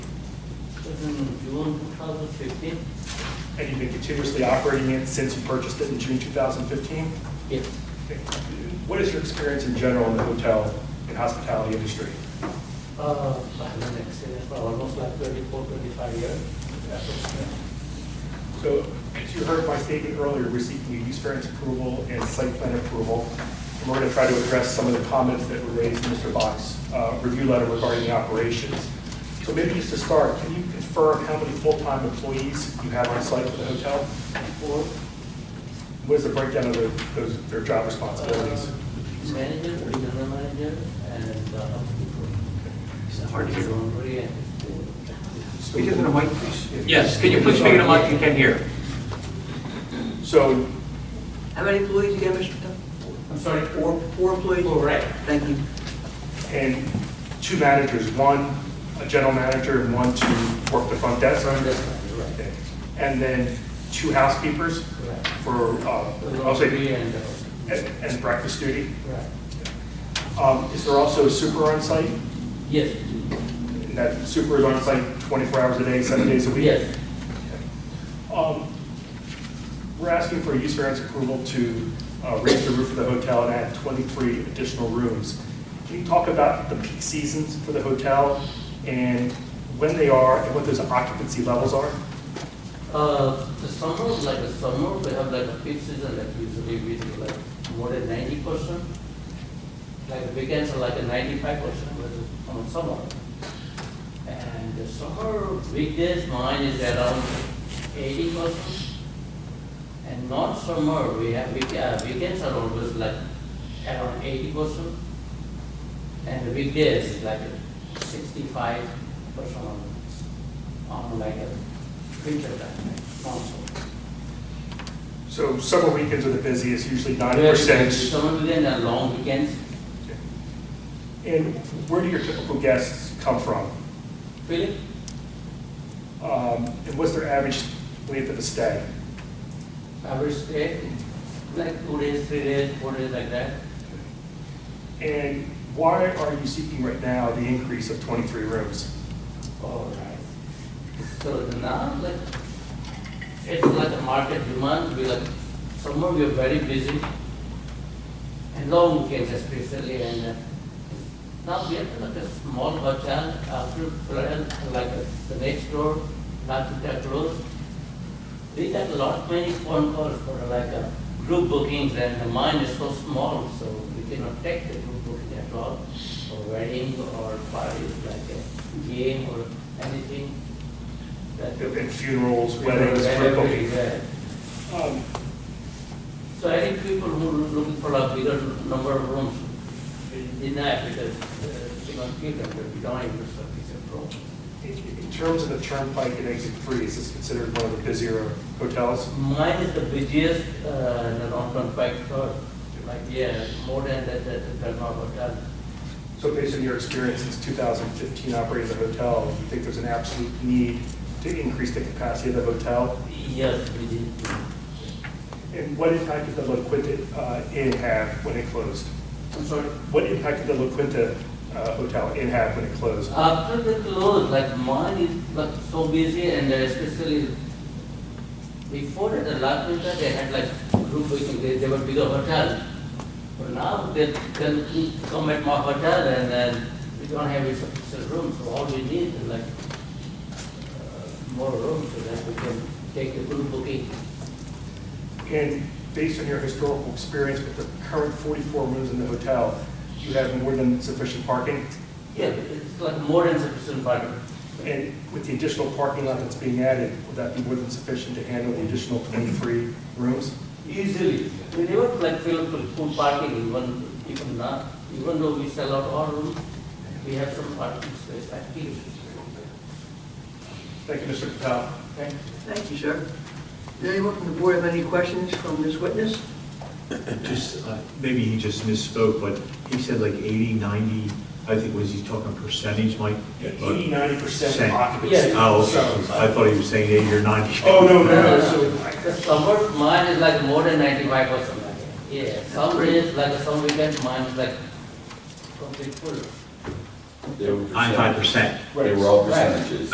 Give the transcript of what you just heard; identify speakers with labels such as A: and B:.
A: in June 2015?
B: And you've been continuously operating it since you purchased it in June 2015?
A: Yes.
B: What is your experience in general in the hotel and hospitality industry?
A: Uh, I have an experience for almost like 24, 25 years.
B: So, as you heard my statement earlier, we're seeking a use variance approval and site plan approval. And we're going to try to address some of the comments that were raised in Mr. Bach's uh, review letter regarding the operations. So maybe just to start, can you confirm how many full-time employees you have on site for the hotel?
A: Four
B: What is the breakdown of the- those, their job responsibilities?
A: uh, manager, regional manager, and uh, housekeeper. It's hard to hear.
C: Speak into the mic, please.
D: Yes, can you please speak into the mic, you can hear.
B: So,
E: How many employees again, Mr. Tuck?
A: I'm sorry,
E: Four, four employees?
A: Correct.
E: Thank you.
B: and two managers, one a general manager and one to work the front desk?
A: Front desk, right.
B: And then two housekeepers
A: Correct.
B: for, uh, I'll
A: Laundry
B: say,
A: and, uh,
B: and and breakfast duty?
A: right.
B: Um, Is there also a super on site?
A: Yes,
B: And that super is on site 24 hours a day, seven days a week?
A: yes,
B: Um, We're asking for a use variance approval to uh, raise the roof of the hotel and add 23 additional rooms. Can you talk about the peak seasons for the hotel and when they are and what those occupancy levels are?
A: Uh, The summer, like a summer, we have like a peak season, like usually we do like more than ninety percent. Like weekends are like a ninety-five percent on summer. And the summer weekdays, mine is around eighty percent. And not summer, we have, week- uh, weekends are always like around eighty percent. And the weekdays is like sixty-five percent on like a winter time, also.
B: So summer weekends are the busiest, usually
A: Very busy.
B: 90%.
A: Summer weekend and long weekends,
B: And where do your typical guests come from?
A: Philip,
B: Um, And what's their average length of a stay?
A: average stay, like two days, three days, four days like that.
B: And why are you seeking right now the increase of 23 rooms?
A: All right. So now, like, it's like a market demand, we like, summer we are very busy. And long weekends especially, and uh, now we have like a small hotel, after, like, uh, the next door, not that close. We got a lot many phone calls for like uh, group bookings and mine is so small, so we cannot take the group booking at all. Or wedding or parties like a game or anything. that-
B: And funerals, weddings, group
A: Whatever
B: bookings?
A: is there.
B: Um,
A: So I think people who are looking for a bigger number of rooms deny because uh, they don't give them, but we don't have the service of rooms.
B: In in terms of the turnpike and exit three, is this considered one of the busier hotels?
A: Mine is the busiest, uh, in the long-term bike store, like, yeah, more than that, that, that North Hotel.
B: So based on your experience since 2015 operating the hotel, you think there's an absolute need to increase the capacity of the hotel?
A: Yes, we did.
B: And what impact did the La Quinta uh, Inn have when it closed?
A: I'm sorry.
B: What impact did the La Quinta uh, Hotel Inn have when it closed?
A: After the close, like mine is like so busy and uh, especially before the last winter, they had like group booking, they, they were bigger hotel. But now they can come at my hotel and then we don't have a sufficient room, so all we need is like uh, more room so that we can take the group booking.
B: And based on your historical experience with the current 44 rooms in the hotel, you have more than sufficient parking?
A: Yeah, it's like more than sufficient parking.
B: And with the additional parking lot that's being added, would that be more than sufficient to handle the additional 23 rooms?
A: Easily. We never like fill up with full parking even, even now. Even though we sell out all rooms, we have some parking space actually.
B: Thank you, Mr. Patel.
A: Thank you.
E: Thank you, sir. Does anyone from the board have any questions from this witness?
C: Just, uh, maybe he just misspoke, but he said like 80, 90, I think, was he talking percentage, Mike?
B: 80, 90%
C: Percent.
B: occupancy.
A: Yeah.
C: Oh, okay. I thought he was saying 80 or 90.
B: Oh, no, no,
A: Uh,
B: no, so,
A: The summer mine is like more than ninety-five percent. Yeah, some days, like some weekends, mine is like complete full.
C: I'm 5%.
F: They were all percentages.